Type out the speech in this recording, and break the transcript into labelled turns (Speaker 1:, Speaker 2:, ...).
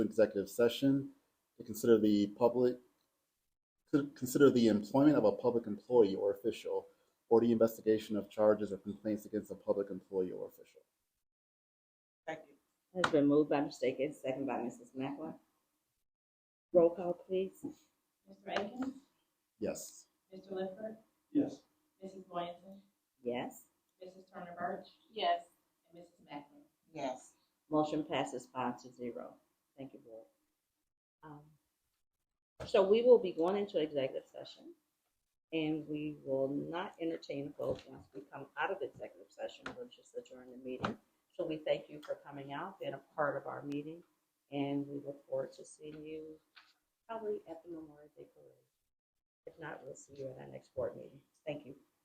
Speaker 1: executive session to consider the public, to consider the employment of a public employee or official, or the investigation of charges or complaints against a public employee or official.
Speaker 2: Second.
Speaker 3: Has been moved by Mr. Akins, second by Mrs. Mackler. Roll call, please.
Speaker 2: Mr. Akins?
Speaker 1: Yes.
Speaker 2: Mr. Lifford?
Speaker 4: Yes.
Speaker 2: Mrs. Williamson?
Speaker 3: Yes.
Speaker 2: Mrs. Turner Birch? Yes. And Mrs. Mackler? Yes.
Speaker 3: Motion passes five to zero. Thank you, board. Um, So we will be going into executive session, and we will not entertain votes once we come out of executive session, we'll just adjourn the meeting. So we thank you for coming out, being a part of our meeting, and we look forward to seeing you probably at the Memorial Day Parade. If not, we'll see you at our next board meeting. Thank you.